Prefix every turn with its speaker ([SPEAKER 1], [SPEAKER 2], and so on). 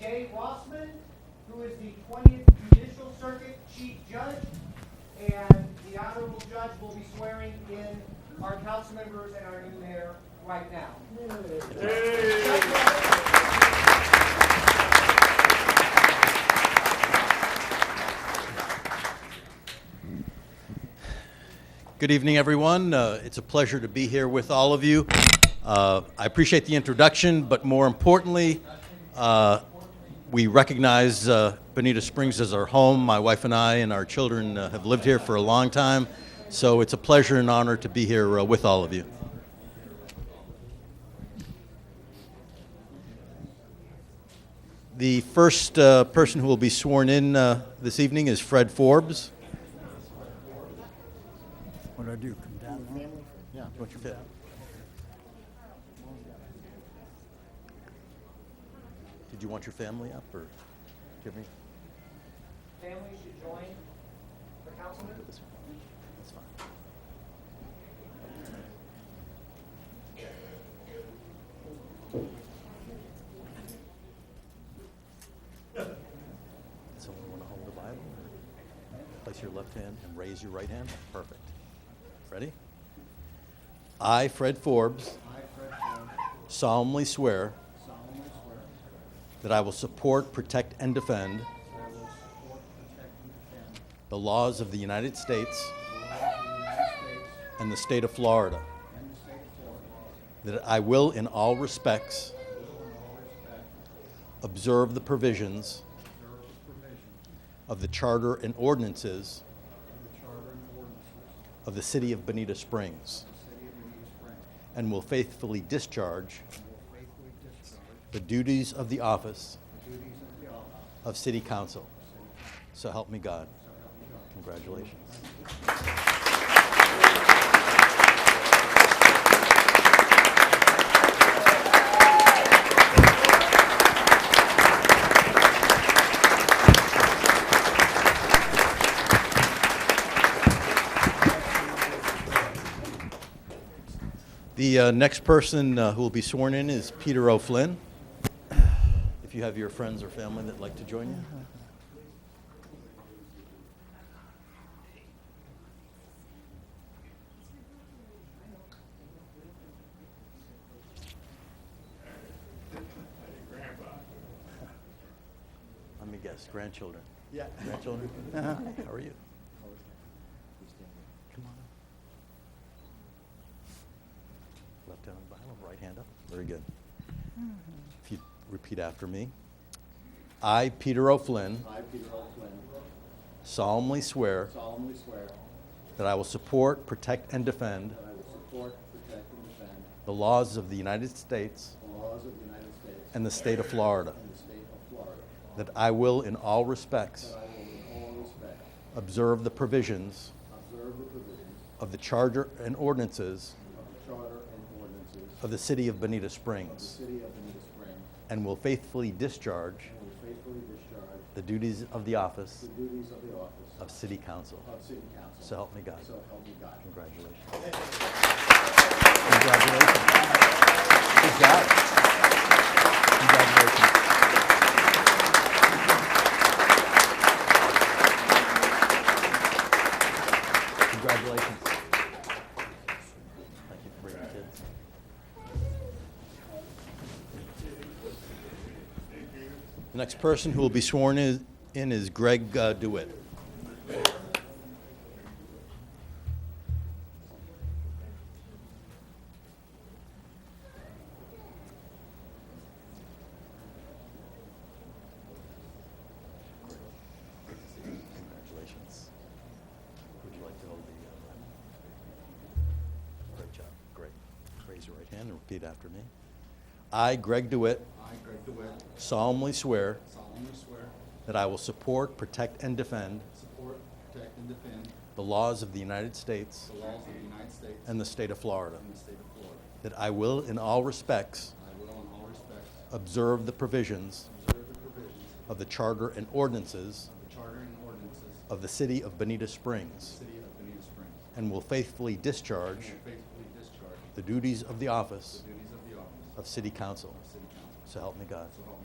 [SPEAKER 1] Rossman, who is the 20th Judicial Circuit Chief Judge, and the Honorable Judge will be swearing in our council members and our new mayor right now.
[SPEAKER 2] Good evening, everyone. Uh, it's a pleasure to be here with all of you. Uh, I appreciate the introduction, but more importantly, uh, we recognize uh, Bonita Springs as our home. My wife and I and our children uh, have lived here for a long time, so it's a pleasure and honor to be here uh, with all of you. The first uh, person who will be sworn in uh, this evening is Fred Forbes.
[SPEAKER 3] What do I do? Come down? now? Yeah. What you
[SPEAKER 2] Yeah. Did you want your family up or? do you have any-
[SPEAKER 1] Families should join the council members.
[SPEAKER 2] this one? That's fine. Someone want to hold the Bible? or Place your left hand and raise your right hand. Perfect. Ready? I, Fred Forbes,
[SPEAKER 4] I, Fred Jones,
[SPEAKER 2] solemnly swear
[SPEAKER 4] solemnly swear that
[SPEAKER 2] that I will support, protect, and defend
[SPEAKER 4] I will support, protect, and defend
[SPEAKER 2] the laws of the United States
[SPEAKER 4] the laws of the United States
[SPEAKER 2] and the state of Florida,
[SPEAKER 4] and the state of Florida,
[SPEAKER 2] that I will, in all respects,
[SPEAKER 4] will in all respects
[SPEAKER 2] observe the provisions
[SPEAKER 4] observe the provisions
[SPEAKER 2] of the charter and ordinances
[SPEAKER 4] of the charter and ordinances of
[SPEAKER 2] of the city of Bonita Springs,
[SPEAKER 4] the city of Benita Springs,
[SPEAKER 2] and will faithfully discharge
[SPEAKER 4] and will faithfully discharge
[SPEAKER 2] the duties of the office
[SPEAKER 4] the duties of the office
[SPEAKER 2] of city council. So help me God. Congratulations. The uh, next person uh, who will be sworn in is Peter O'Flynn. If you have your friends or family that'd like to join you. Let me guess, grandchildren? Yeah. Grandchildren? Hi, How are you? Come on up. Left hand on the Bible, right hand up. Very good. If you repeat after me. I, Peter O'Flynn,
[SPEAKER 4] I, Peter O'Flynn,
[SPEAKER 2] solemnly swear
[SPEAKER 4] solemnly swear
[SPEAKER 2] that I will support, protect, and defend
[SPEAKER 4] that I will support, protect, and defend
[SPEAKER 2] the laws of the United States
[SPEAKER 4] the laws of the United States
[SPEAKER 2] and the state of Florida,
[SPEAKER 4] and the state of Florida,
[SPEAKER 2] that I will, in all respects,
[SPEAKER 4] that I will in all respects
[SPEAKER 2] observe the provisions
[SPEAKER 4] observe the provisions
[SPEAKER 2] of the charter and ordinances
[SPEAKER 4] of the charter and ordinances
[SPEAKER 2] of the city of Bonita
[SPEAKER 4] of the
[SPEAKER 2] Springs,
[SPEAKER 4] city of Benita Springs,
[SPEAKER 2] and will faithfully discharge
[SPEAKER 4] and will faithfully discharge
[SPEAKER 2] the duties of the office
[SPEAKER 4] the duties of the office
[SPEAKER 2] of city council.
[SPEAKER 4] of city council.
[SPEAKER 2] So help me God.
[SPEAKER 4] So help me God.
[SPEAKER 2] Congratulations. Congratulations. Good job. Congratulations. Congratulations. Thank you for bringing kids. The next person who will be sworn is- in is Greg uh, DeWitt. Congratulations. Would you like to hold the uh, Bible? Great job, great. Raise your right hand and repeat after me. I, Greg DeWitt,
[SPEAKER 4] I, Greg DeWitt,
[SPEAKER 2] solemnly swear
[SPEAKER 4] solemnly swear,
[SPEAKER 2] that I will support, protect, and defend
[SPEAKER 4] support, protect, and defend
[SPEAKER 2] the laws of the United States
[SPEAKER 4] the laws of the United States
[SPEAKER 2] and the state of Florida,
[SPEAKER 4] and the state of Florida.
[SPEAKER 2] that I will, in all respects,
[SPEAKER 4] I will in all respects
[SPEAKER 2] observe the provisions
[SPEAKER 4] observe the provisions
[SPEAKER 2] of the charter and ordinances
[SPEAKER 4] of the charter and ordinances of
[SPEAKER 2] of the city of Bonita
[SPEAKER 4] the
[SPEAKER 2] Springs,
[SPEAKER 4] city of Benita Springs,
[SPEAKER 2] and will faithfully discharge
[SPEAKER 4] and will faithfully discharge
[SPEAKER 2] the duties of the office
[SPEAKER 4] the duties of the office
[SPEAKER 2] of city council.
[SPEAKER 4] of city council.
[SPEAKER 2] So help me God.
[SPEAKER 4] So help me